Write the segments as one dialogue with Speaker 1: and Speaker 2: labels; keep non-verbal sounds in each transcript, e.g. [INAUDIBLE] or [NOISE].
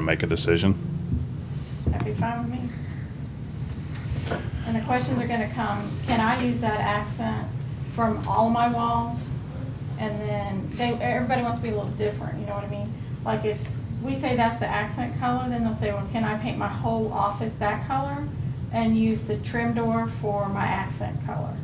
Speaker 1: make a decision.
Speaker 2: That'd be fine with me. And the questions are gonna come, can I use that accent from all my walls? And then, they, everybody wants to be a little different, you know what I mean? Like if we say that's the accent color, then they'll say, well, can I paint my whole office that color? And use the trim door for my accent color?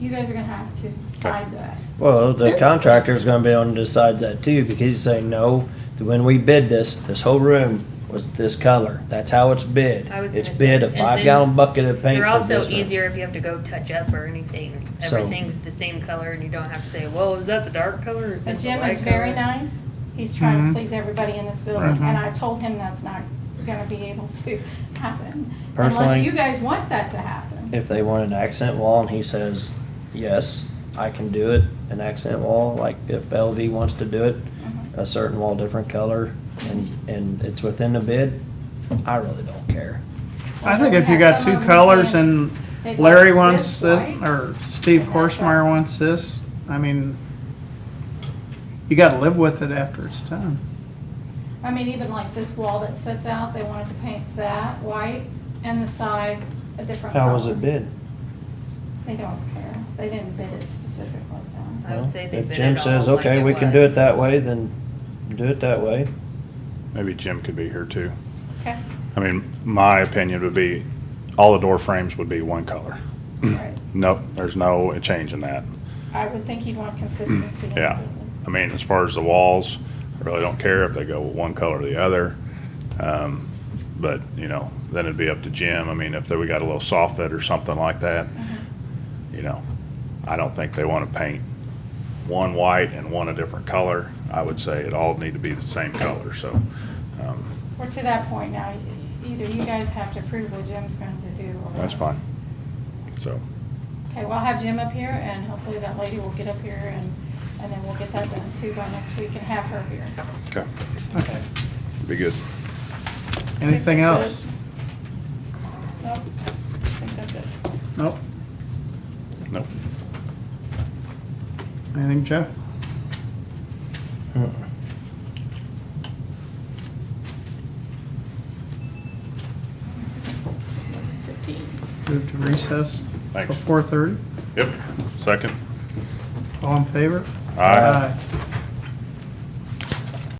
Speaker 2: You guys are gonna have to decide that.
Speaker 3: Well, the contractor's gonna be on to decide that too, because he's saying, no, when we bid this, this whole room was this color. That's how it's bid.
Speaker 4: I was
Speaker 3: It's
Speaker 4: gonna
Speaker 3: bid
Speaker 4: say,
Speaker 3: a
Speaker 4: and
Speaker 3: five gallon
Speaker 4: then
Speaker 3: bucket of paint
Speaker 4: They're
Speaker 3: for
Speaker 4: also
Speaker 3: this room.
Speaker 4: easier if you have to go touch up or anything.
Speaker 3: So-
Speaker 4: Everything's the same color and you don't have to say, whoa, is that the dark color or is
Speaker 2: But
Speaker 4: that the
Speaker 2: Jim is
Speaker 4: light
Speaker 2: very
Speaker 4: color?"
Speaker 2: nice. He's trying to
Speaker 3: Mm-hmm.
Speaker 5: Mhm.
Speaker 2: please everybody in this building,
Speaker 5: Right.
Speaker 2: and I told him that's not gonna be able [LAUGHS] to happen. Unless
Speaker 3: Personally-
Speaker 2: you guys want that to happen.
Speaker 3: If they want an accent wall and he says, yes, I can do it, an accent wall, like if LV wants to do it,
Speaker 2: Mhm.
Speaker 4: Mm-hmm.
Speaker 3: a certain wall, different color, and, and it's within the bid, I really don't care.
Speaker 5: I
Speaker 2: Well,
Speaker 5: think
Speaker 2: we
Speaker 5: if you
Speaker 2: have
Speaker 5: got
Speaker 2: some
Speaker 5: two
Speaker 2: of them
Speaker 5: colors and
Speaker 2: saying they'd
Speaker 5: Larry
Speaker 2: like
Speaker 5: wants
Speaker 2: this
Speaker 5: it,
Speaker 2: white.
Speaker 5: or Steve
Speaker 2: and that's
Speaker 5: Korsmeyer
Speaker 2: all.
Speaker 5: wants this, I mean, you gotta live with it after it's done.
Speaker 2: I mean, even like this wall that sits out, they wanted to paint that white and the sides a different color.
Speaker 3: How was it bid?
Speaker 2: They don't care. They didn't bid it specifically though.
Speaker 4: I would say they
Speaker 3: If
Speaker 4: bid it
Speaker 3: Jim says,
Speaker 4: all like
Speaker 3: okay,
Speaker 4: it
Speaker 3: we can do
Speaker 4: was."
Speaker 3: it that way, then do it that way.
Speaker 1: Maybe Jim could be here too.
Speaker 2: Okay,
Speaker 1: I mean, my opinion would be, all the door frames would be one color.
Speaker 2: right.
Speaker 1: Nope, there's no change in that.
Speaker 2: I would think you'd
Speaker 3: Mm.
Speaker 2: want consistency. in the
Speaker 1: Mm. Yeah.
Speaker 2: building.
Speaker 1: I mean, as far as the walls, I really don't care if they go with one color or the other. Um, But, you know, then it'd be up to Jim. I mean, if they- we got a little soffit or something like that,
Speaker 2: Mm-hmm.
Speaker 1: you know, I don't think they want to paint one white and one a different color. I would say it all need to be the same color, so. um,
Speaker 2: We're to that point now. Either you guys have to approve what Jim's going to do. or-
Speaker 1: That's fine. So,
Speaker 2: Okay, well, I'll have Jim up here and hopefully that lady will get up here and, and then we'll get that done too by next week and have her here.
Speaker 1: okay,
Speaker 5: Okay.
Speaker 1: be good.
Speaker 5: Anything
Speaker 2: That's it.
Speaker 5: else?
Speaker 2: Nope, I think that's it.
Speaker 5: Nope.
Speaker 1: No,
Speaker 5: Anything, Jeff?
Speaker 2: It's 11:15.
Speaker 5: Move to recess till
Speaker 1: Thanks.
Speaker 5: four thirty?
Speaker 1: Yep, second.
Speaker 5: All in favor?
Speaker 1: Aye.